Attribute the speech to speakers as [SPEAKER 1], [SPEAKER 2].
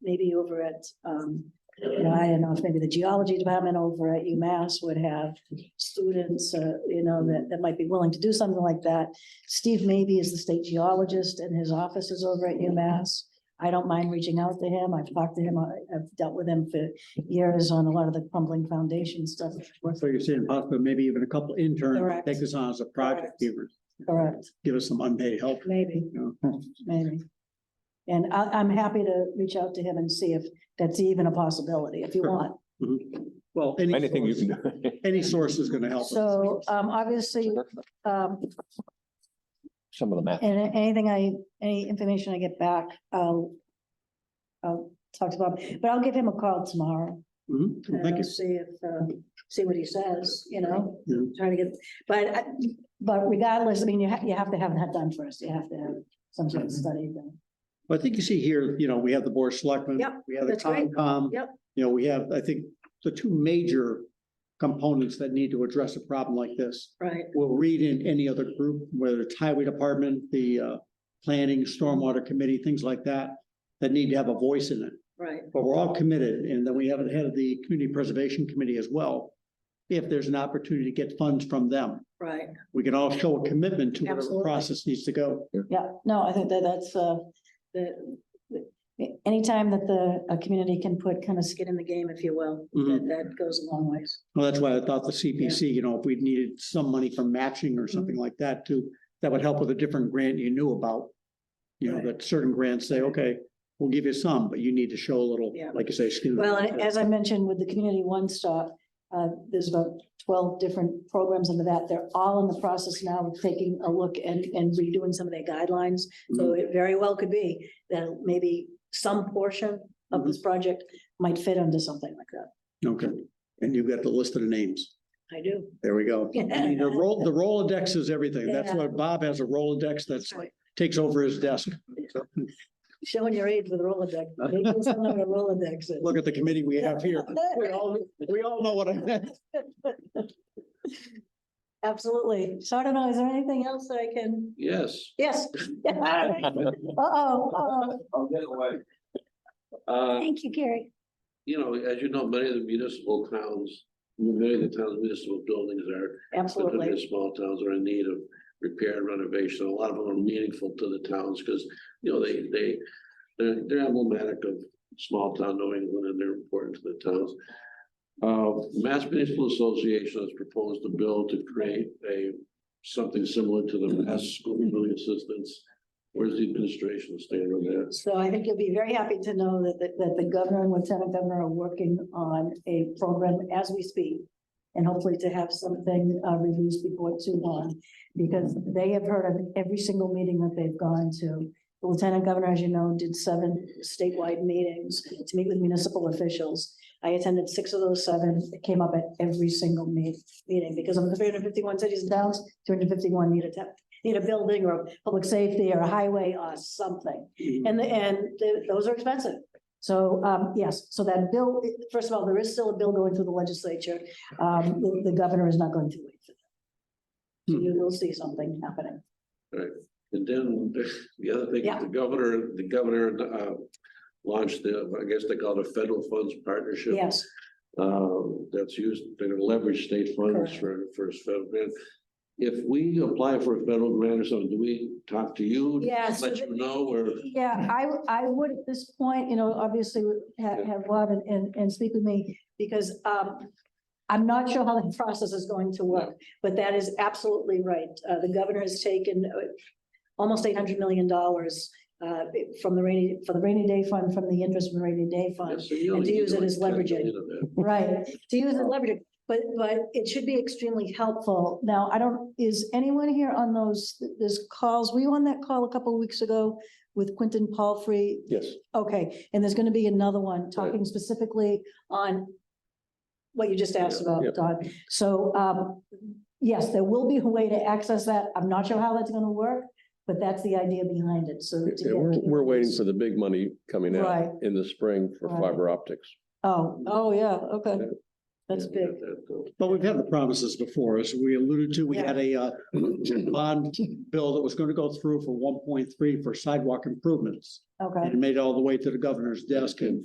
[SPEAKER 1] maybe over at, um, you know, I don't know if maybe the geology department over at UMass would have students, uh, you know, that, that might be willing to do something like that. Steve Maybe is the state geologist and his office is over at UMass. I don't mind reaching out to him. I've talked to him. I- I've dealt with him for years on a lot of the crumbling foundation stuff.
[SPEAKER 2] So you're saying possibly maybe even a couple interns
[SPEAKER 1] Correct.
[SPEAKER 2] take this on as a project,
[SPEAKER 1] Correct.
[SPEAKER 2] give us,
[SPEAKER 1] Correct,
[SPEAKER 2] give us some unpaid help.
[SPEAKER 1] maybe.
[SPEAKER 2] you know?
[SPEAKER 1] maybe. And I, I'm happy to reach out to him and see if that's even a possibility, if you
[SPEAKER 2] Sure.
[SPEAKER 1] want.
[SPEAKER 2] Mhm. Well, any.
[SPEAKER 3] Anything you
[SPEAKER 2] source-
[SPEAKER 3] can do.
[SPEAKER 2] Any source is gonna help. us.
[SPEAKER 1] So, um, obviously, um,
[SPEAKER 3] Some of the math.
[SPEAKER 1] and anything I, any information I get back, I'll, I'll talk to Bob, but I'll give him a call tomorrow.
[SPEAKER 2] Mhm. Well,
[SPEAKER 1] and
[SPEAKER 2] Thank you.
[SPEAKER 1] See if, uh, see what he says, you know,
[SPEAKER 2] Yeah.
[SPEAKER 1] trying to get, but, I- but regardless, I mean, you have, you have to have that done first. You have to have some sort of
[SPEAKER 2] Mm-hmm.
[SPEAKER 1] study done.
[SPEAKER 2] Well, I think you see here, you know, we have the board of selectmen.
[SPEAKER 1] Yep,
[SPEAKER 2] We have the
[SPEAKER 1] that's right.
[SPEAKER 2] Concom.
[SPEAKER 1] Yep.
[SPEAKER 2] You know, we have, I think, the two major components that need to address a problem like this.
[SPEAKER 1] Right.
[SPEAKER 2] We'll read in any other group, whether it's highway department, the uh, planning, stormwater committee, things like that, that need to have a voice in it.
[SPEAKER 1] Right.
[SPEAKER 2] But we're all committed, and then we have it head of the community preservation committee as well. If there's an opportunity to get funds from them,
[SPEAKER 1] Right.
[SPEAKER 2] we can all show a commitment to where the
[SPEAKER 1] Absolutely.
[SPEAKER 2] process needs to go.
[SPEAKER 1] Yeah, no, I think that that's, uh, the, the- anytime that the, a community can put kind of skin in the game, if you will, that,
[SPEAKER 2] Mhm.
[SPEAKER 1] that goes a long ways.
[SPEAKER 2] Well, that's why I thought the CPC, you know, if we needed some money for matching or something
[SPEAKER 1] Mm-hmm.
[SPEAKER 2] like that too, that would help with a different grant you knew about. You know,
[SPEAKER 1] Right.
[SPEAKER 2] that certain grants say, okay, we'll give you some, but you need to show a little,
[SPEAKER 1] Yeah.
[SPEAKER 2] like you say, skin. in the
[SPEAKER 1] Well,
[SPEAKER 2] game.
[SPEAKER 1] and as I mentioned with the Community One Stop, uh, there's about twelve different programs under that. They're all in the process now of taking a look and, and redoing some of their guidelines. So
[SPEAKER 2] Mm-hmm.
[SPEAKER 1] it very well could be that maybe some portion of
[SPEAKER 2] Mm-hmm.
[SPEAKER 1] this project might fit under something like that.
[SPEAKER 2] Okay, and you've got the list of the names.
[SPEAKER 1] I do.
[SPEAKER 2] There we go. I mean, The roll, the Rolodex is everything. That's
[SPEAKER 1] Yeah.
[SPEAKER 2] why Bob has a Rolodex that's like, takes over his desk.
[SPEAKER 1] Showing your age with Rolodex. Maybe it's not what a Rolodex is.
[SPEAKER 2] Look at the committee we have here. We all, we all know what I meant.
[SPEAKER 1] Absolutely. So I don't know, is there anything else that I can,
[SPEAKER 4] Yes.
[SPEAKER 1] yes? Uh-oh, uh-oh.
[SPEAKER 4] I'll get away. Uh,
[SPEAKER 1] Thank you, Gary.
[SPEAKER 4] you know, as you know, many of the municipal towns, many of the towns municipal buildings are, particularly
[SPEAKER 1] Absolutely.
[SPEAKER 4] the small towns are in need of repair and renovation. A lot of them are meaningful to the towns because, you know, they, they, they're, they're emblematic of small town New England and they're important to the towns. Uh, Mass Municipal Association has proposed a bill to create a, something similar to the Mass School Building Assistance. Where's the administration stand on that?
[SPEAKER 1] So I think you'll be very happy to know that, that, that the governor and lieutenant governor are working on a program as we speak. And hopefully to have something, uh, released before too long, because they have heard of every single meeting that they've gone to. The Lieutenant governor, as you know, did seven statewide meetings to meet with municipal officials. I attended six of those seven, it came up at every single meet, meeting, because of the three hundred fifty-one cities and towns, two hundred fifty-one need a, te- need a building or a public safety or a highway or something. And, the- and the- those are expensive. So, um, yes, so that bill, first of all, there is still a bill going through the legislature. Um, the, the governor is not going to wait for that. So you will see something happening.
[SPEAKER 4] And then the- the other thing,
[SPEAKER 1] Yeah.
[SPEAKER 4] the governor, the governor uh launched the, I guess they call it a federal funds partnership.
[SPEAKER 1] Yes,
[SPEAKER 4] Um, that's used, they're gonna leverage state funds
[SPEAKER 1] Correct.
[SPEAKER 4] for for a federal grant. If we apply for a federal grant or something, do we talk to you?
[SPEAKER 1] Yeah, so
[SPEAKER 4] Let you
[SPEAKER 1] that-
[SPEAKER 4] know or?
[SPEAKER 1] yeah, I, I would at this point, you know, obviously have, have Bob and, and, and speak with me because, um, I'm not sure how the process is going to work, but that is absolutely right. Uh, the governor has taken uh, almost eight hundred million dollars, uh, from the rainy, for the rainy day fund, from the interest from the rainy day fund.
[SPEAKER 4] Yes, so you only
[SPEAKER 1] to
[SPEAKER 4] need
[SPEAKER 1] use it
[SPEAKER 4] like
[SPEAKER 1] as
[SPEAKER 4] 10 million
[SPEAKER 1] leveraging.
[SPEAKER 4] of that.
[SPEAKER 1] Right, to use and leverage it, but, but it should be extremely helpful. Now, I don't, is anyone here on those, those calls? Were you on that call a couple of weeks ago with Quentin Palfrey?
[SPEAKER 3] Yes.
[SPEAKER 1] Okay, and there's gonna be another one talking specifically on what you just asked about,
[SPEAKER 3] yeah.
[SPEAKER 1] Don. So, um, yes, there will be a way to access that. I'm not sure how that's gonna work, but that's the idea behind it, so. to
[SPEAKER 3] Yeah,
[SPEAKER 1] get
[SPEAKER 3] we're, we're waiting
[SPEAKER 1] communities-
[SPEAKER 3] for the big money coming out
[SPEAKER 1] Right.
[SPEAKER 3] in the spring for
[SPEAKER 1] Right.
[SPEAKER 3] fiber optics.
[SPEAKER 1] Oh, oh, yeah, okay.
[SPEAKER 3] Yeah.
[SPEAKER 1] That's
[SPEAKER 4] Yeah,
[SPEAKER 1] big.
[SPEAKER 4] that, uh,
[SPEAKER 2] But we've had the promises before, as we alluded to, we had a uh, bond bill that was going to go through for one point three for sidewalk improvements.
[SPEAKER 1] Okay.
[SPEAKER 2] And it made it all the way to the governor's desk and